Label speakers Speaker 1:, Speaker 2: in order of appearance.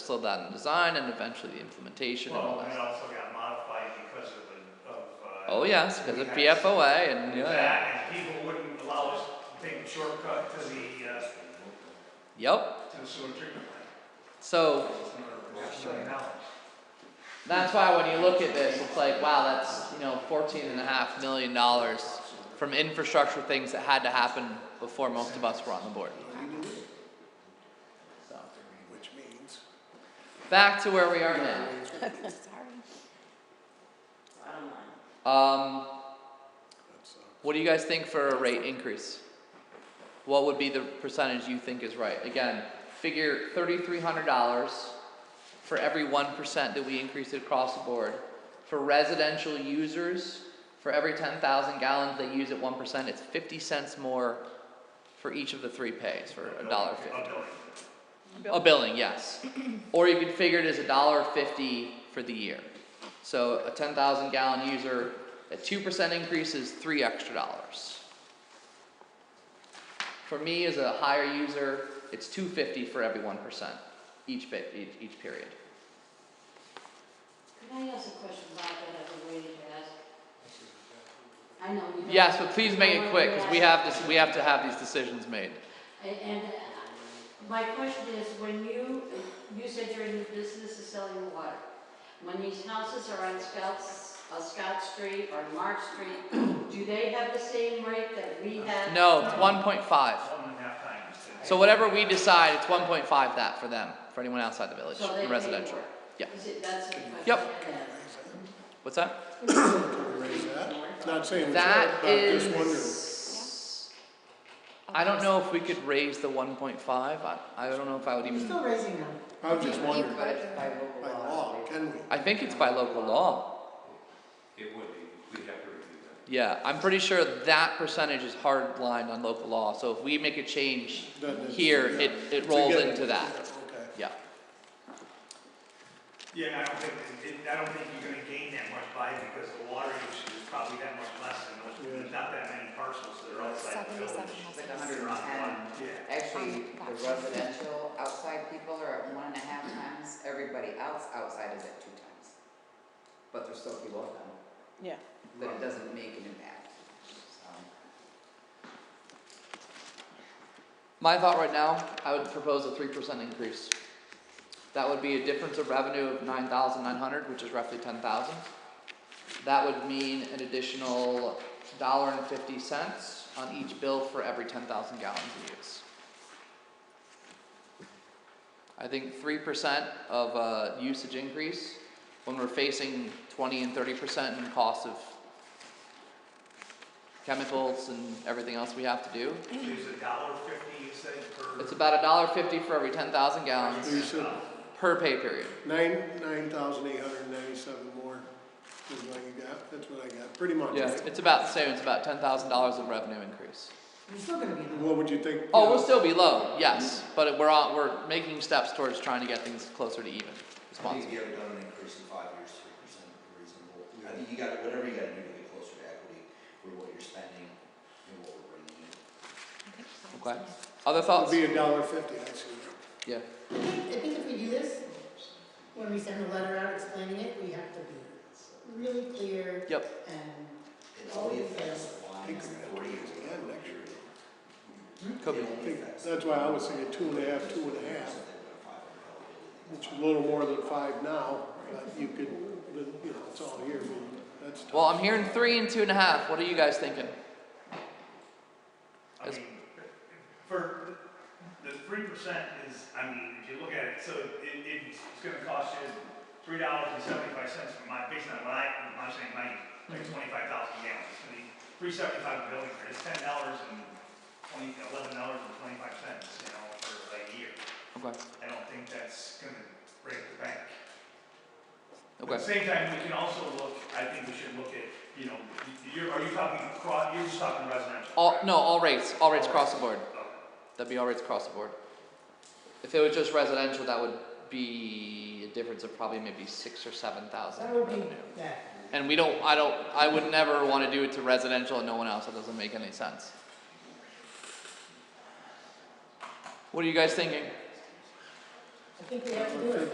Speaker 1: slowed down the design and eventually the implementation and all
Speaker 2: Well,
Speaker 1: that.
Speaker 2: it also got modified because of the, of, uh.
Speaker 1: Oh yes, because of
Speaker 2: we had
Speaker 1: PFOA and yeah, yeah.
Speaker 2: That, and people wouldn't allow us to take a shortcut to the, uh,
Speaker 1: Yep.
Speaker 2: to the sewer treatment plant.
Speaker 1: So
Speaker 2: That's million dollars.
Speaker 1: that's why when you look at this, it's like, wow, that's you know, fourteen and a half million dollars from infrastructure things that had to happen before most of us were on the board. So
Speaker 3: Which means.
Speaker 1: back to where we are now.
Speaker 4: Sorry.
Speaker 1: Um, what do you guys think for a rate increase? What would be the percentage you think is right? Again, figure thirty-three hundred dollars for every one percent that we increase it across the board. For residential users, for every ten thousand gallons they use at one percent, it's fifty cents more for each of the three pays for a dollar fifty.
Speaker 2: A billion.
Speaker 1: A billing, yes. Or you could figure it as a dollar fifty for the year. So a ten thousand gallon user, a two percent increase is three extra dollars. For me, as a higher user, it's two fifty for every one percent, each bit, each, each period.
Speaker 5: Can I ask a question about that other way to ask? I know you. don't-
Speaker 1: Yes, but please make it quick, cause we have this, we have to have these decisions made.
Speaker 5: And, and uh, my question is, when you, you said you're in the business of selling water. When these houses are on Scouts, uh, Scott Street or Mark Street, do they have the same rate that we have?
Speaker 1: No, it's one point five.
Speaker 2: One and a half times. the-
Speaker 1: So whatever we decide, it's one point five that for them, for anyone outside the village,
Speaker 5: So they pay
Speaker 1: residential.
Speaker 5: more?
Speaker 1: Yeah,
Speaker 5: Is it, that's the question?
Speaker 1: Yep.
Speaker 5: I have.
Speaker 1: what's that?
Speaker 3: Raise that. It's Not saying it's right,
Speaker 1: That
Speaker 3: but I'm just wondering.
Speaker 1: is. I don't know if we could raise the one point five, I, I don't know if I would
Speaker 6: You're
Speaker 1: even,
Speaker 6: still raising them.
Speaker 3: I was just
Speaker 4: You-
Speaker 3: wondering,
Speaker 4: You
Speaker 3: by
Speaker 4: could, by local law.
Speaker 3: law, can we?
Speaker 1: I think it's by local law.
Speaker 7: It would be, we'd have to review that.
Speaker 1: Yeah, I'm pretty sure that percentage is hard lined on local law, so if we make a change
Speaker 3: Then it's-
Speaker 1: here,
Speaker 3: yeah.
Speaker 1: it, it rolls
Speaker 3: Together,
Speaker 1: into that,
Speaker 3: yeah, Okay.
Speaker 1: yeah.
Speaker 2: Yeah, I don't think, it- I don't think you're gonna gain that much by it because the water usage is probably that much less than those, there's not that many parcels that are outside the village.
Speaker 4: Seventy-seven houses.
Speaker 6: Like a hundred and ten.
Speaker 2: Yeah.
Speaker 6: Actually, the residential outside people are at one and a half times, everybody else outside is at two times. But they're still below them,
Speaker 8: Yeah.
Speaker 6: but it doesn't make an impact, so.
Speaker 1: My thought right now, I would propose a three percent increase. That would be a difference of revenue of nine thousand nine hundred, which is roughly ten thousand. That would mean an additional dollar and fifty cents on each bill for every ten thousand gallons we use. I think three percent of uh usage increase, when we're facing twenty and thirty percent in cost of chemicals and everything else we have to do,
Speaker 2: There's a dollar fifty, you said, per.
Speaker 1: it's about a dollar fifty for every ten thousand gallons
Speaker 3: You said
Speaker 1: per pay period.
Speaker 3: nine, nine thousand eight hundred and ninety-seven more is what you got, that's what I got, pretty much.
Speaker 1: Yeah,
Speaker 3: right?
Speaker 1: it's about the same. It's about ten thousand dollars of revenue increase.
Speaker 6: You're still gonna be
Speaker 3: What would you think?
Speaker 1: Oh, we'll still be low, yes, but we're on, we're making steps towards trying to get things closer to even.
Speaker 9: I think
Speaker 1: Responsible.
Speaker 9: if you haven't done an increase in five years, three percent reasonable. I think you got, whatever you gotta do to get closer to equity, with what you're spending and what we're bringing in.
Speaker 1: Okay. Other
Speaker 3: It'd
Speaker 1: thoughts?
Speaker 3: be a dollar fifty, I see.
Speaker 1: Yeah.
Speaker 8: I think, I think if we do this, when we send a letter out explaining it, we have to be really clear
Speaker 1: Yep.
Speaker 8: and
Speaker 9: It only affects the line
Speaker 3: Think we're gonna
Speaker 9: three
Speaker 3: do
Speaker 9: years.
Speaker 3: this again next year.
Speaker 1: Could be.
Speaker 9: It
Speaker 3: I
Speaker 9: only
Speaker 3: think
Speaker 9: affects.
Speaker 3: That's why I was saying two and a half, two and a half, which is a little more than five now, but you could, you know, it's all here, but that's.
Speaker 1: Well, I'm hearing three and two and a half. What are you guys thinking?
Speaker 2: I mean, for, the three percent is, I mean, if you look at it, so it, it's gonna cost you three dollars and seventy-five cents for my, based on what I, I'm saying, my, like
Speaker 1: Mm-hmm.
Speaker 2: twenty-five thousand gallons, it's gonna be three seventy-five a building, it's ten dollars and twenty, eleven dollars and twenty-five cents, you know, for a year.
Speaker 1: Okay.
Speaker 2: I don't think that's gonna break the bank. But At
Speaker 1: Okay.
Speaker 2: the same time, we can also look, I think we should look at, you know, you- you're, are you talking, cro- you're just talking residential?
Speaker 1: All
Speaker 2: correct?
Speaker 1: no, all rates, all rates across the board. That'd be all rates across the board. If it was just residential, that would be a difference of probably maybe six or seven thousand in
Speaker 8: that would be
Speaker 1: revenue.
Speaker 8: that.
Speaker 1: And we don't, I don't, I would never wanna do it to residential and no one else, that doesn't make any sense. What are you guys thinking?
Speaker 8: I think we have to do it.